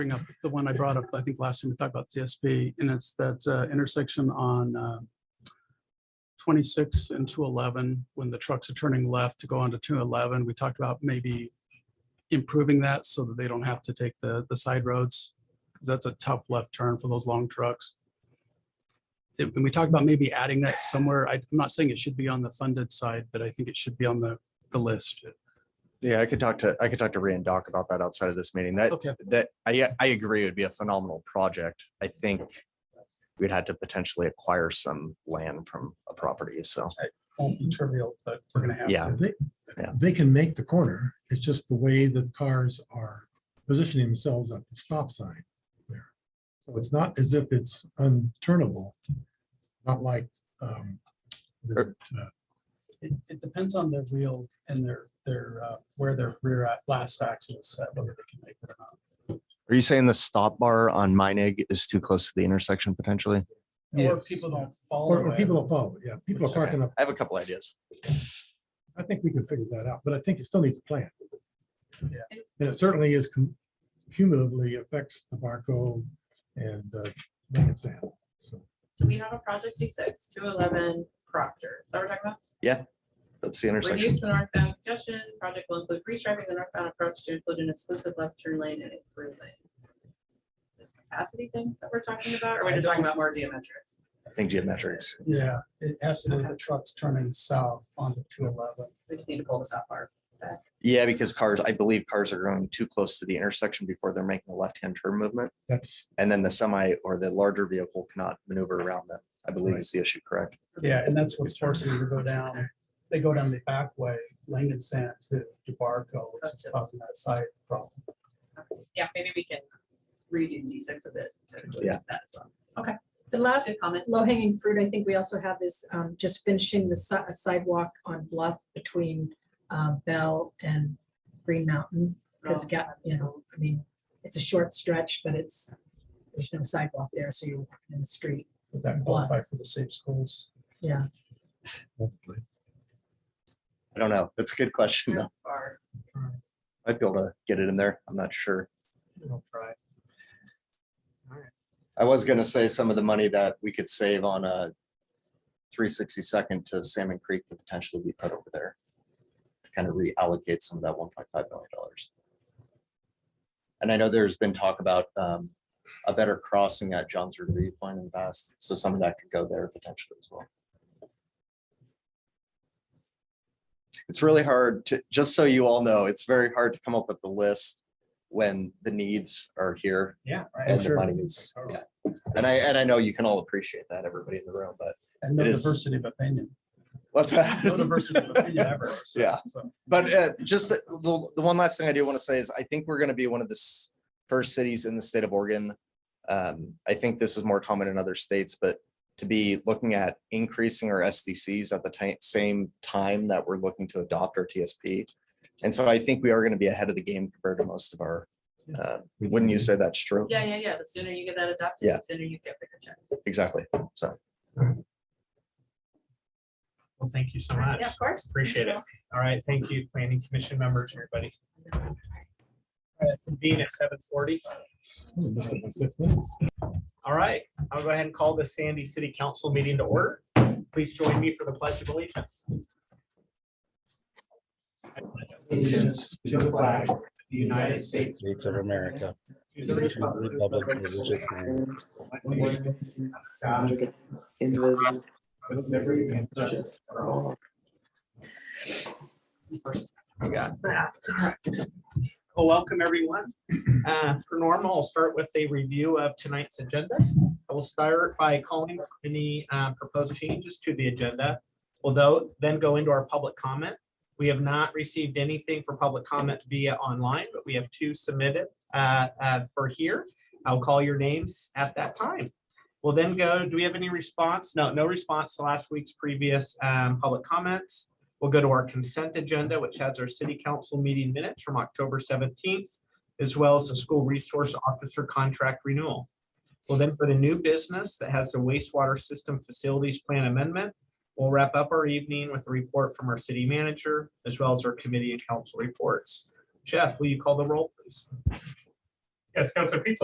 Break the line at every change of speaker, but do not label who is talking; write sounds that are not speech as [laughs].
bring up the one I brought up, I think last time we talked about TSP, and it's that uh, intersection on uh, 26 and 211, when the trucks are turning left to go onto 211, we talked about maybe improving that so that they don't have to take the, the side roads. 'cause That's a tough left turn for those long trucks. It- And we talked about maybe adding that somewhere. I- I'm not saying it should be on the funded side, but I think it should be on the, the list.
Yeah, I could talk to, I could talk to Ray and Doc about that outside of this meeting. That,
Okay,
that, I, I agree, it would be a phenomenal project. I think we'd had to potentially acquire some land from a property, so.
won't be trivial, but we're gonna have.
Yeah.
to.
They,
Yeah.
they can make the corner. It's just the way that cars are positioning themselves at the stop sign there. So it's not as if it's unturnable, not like, um, what is it, uh,
It, it depends on their wheel and their, their, uh, where their rear a- last axle is set, whether they can make it or not.
Are you saying the stop bar on Meinig is too close to the intersection potentially?
Or
Yes.
people don't
or
follow
or
it.
people don't follow. it. Yeah, people are parking up.
I have a couple ideas.
I think we can figure that out, but I think it still needs a plan.
Yeah.
And it certainly is cum- cumulatively affects the Barco and, uh, Lincoln Sand. So
So we have a project D six, two eleven Proctor, that we're talking about.
That's the intersection.
Reduce the northbound congestion, project will include restriping the northbound approach to include an exclusive left turn lane and a through lane. The Capacity thing that we're talking about, or we're just talking about more geometrics?
I think geometrics.
Yeah, it has to do with the trucks turning south onto two eleven.
We just need to pull this off our.
Yeah, because cars, I believe cars are going too close to the intersection before they're making the left-hand turn movement.
that's,
And then the semi or the larger vehicle cannot maneuver around them, I believe is the issue, correct?
Yeah, and that's what's forcing them to go down. They go down the back way, Langdon Sand to DeBarco, which is causing that side problem.
Yeah, maybe we can redo D six a bit. to include
Yeah.
that as well.
The last
Good comment.
low hanging fruit, I think we also have is um, just finishing the si- a sidewalk on Bluff between uh, Bell and Green Mountain. Because, you know, I mean, it's a short stretch, but it's, there's no sidewalk there, so you're walking in the street.
Would that qualify for the safe schools?
Yeah,
hopefully.
I don't know. That's a good question. though.
Or-
I'd be able to get it in there. I'm not sure.
We'll try.
I was gonna say some of the money that we could save on a three sixty second to Salmon Creek could potentially be put over there. to Kind of reallocate some of that one point five million dollars. And I know there's been talk about um, a better crossing at John's Review Point in the past, so some of that could go there potentially as well. It's really hard to, just so you all know, it's very hard to come up with the list when the needs are here
Yeah.
and the
Sure.
money is, yeah. And I, and I know you can all appreciate that, everybody in the room, but
And no
It is-
diversity of opinion.
what's
No
that?
diversity of opinion ever. so-
[laughs] Yeah.
so.
But uh, just the, the the one last thing I do want to say is I think we're going to be one of the s- first cities in the state of Oregon. Um, I think this is more common in other states, but to be looking at increasing our SDCs at the ti- same time that we're looking to adopt our TSP. And so I think we are going to be ahead of the game compared to most of our, uh, wouldn't you say that's true?
Yeah, yeah, yeah, the sooner you get that adopted,
Yeah.
the sooner you get bigger checks.
Exactly. So
Well, thank you so much.
Yeah, of course.
Appreciate it. All right, thank you, planning commission members, everybody. All right, Convene at seven forty.
Oh, that's about six minutes.
All right, I'll go ahead and call the Sandy City Council meeting to order. Please join me for the pledge of allegiance.
allegiance to the flag of the United States of America.
To
to
the
the
republic
republic for which it stands, God,
indivisible,
with liberty and justice for all.
First, we got that. Well, welcome everyone. Uh, Per normal, I'll start with a review of tonight's agenda. I will start by calling for any uh, proposed changes to the agenda. Although, then go into our public comment. We have not received anything for public comment via online, but we have two submitted uh, uh, for here. I'll call your names at that time. We'll then go, do we have any response? No, no response to last week's previous um, public comments. We'll go to our consent agenda, which has our city council meeting minutes from October seventeenth, as well as the school resource officer contract renewal. We'll then put a new business that has the wastewater system facilities plan amendment. We'll wrap up our evening with a report from our city manager, as well as our committee and council reports. Jeff, will you call the roll, please?
Yes, Counselor Pizza.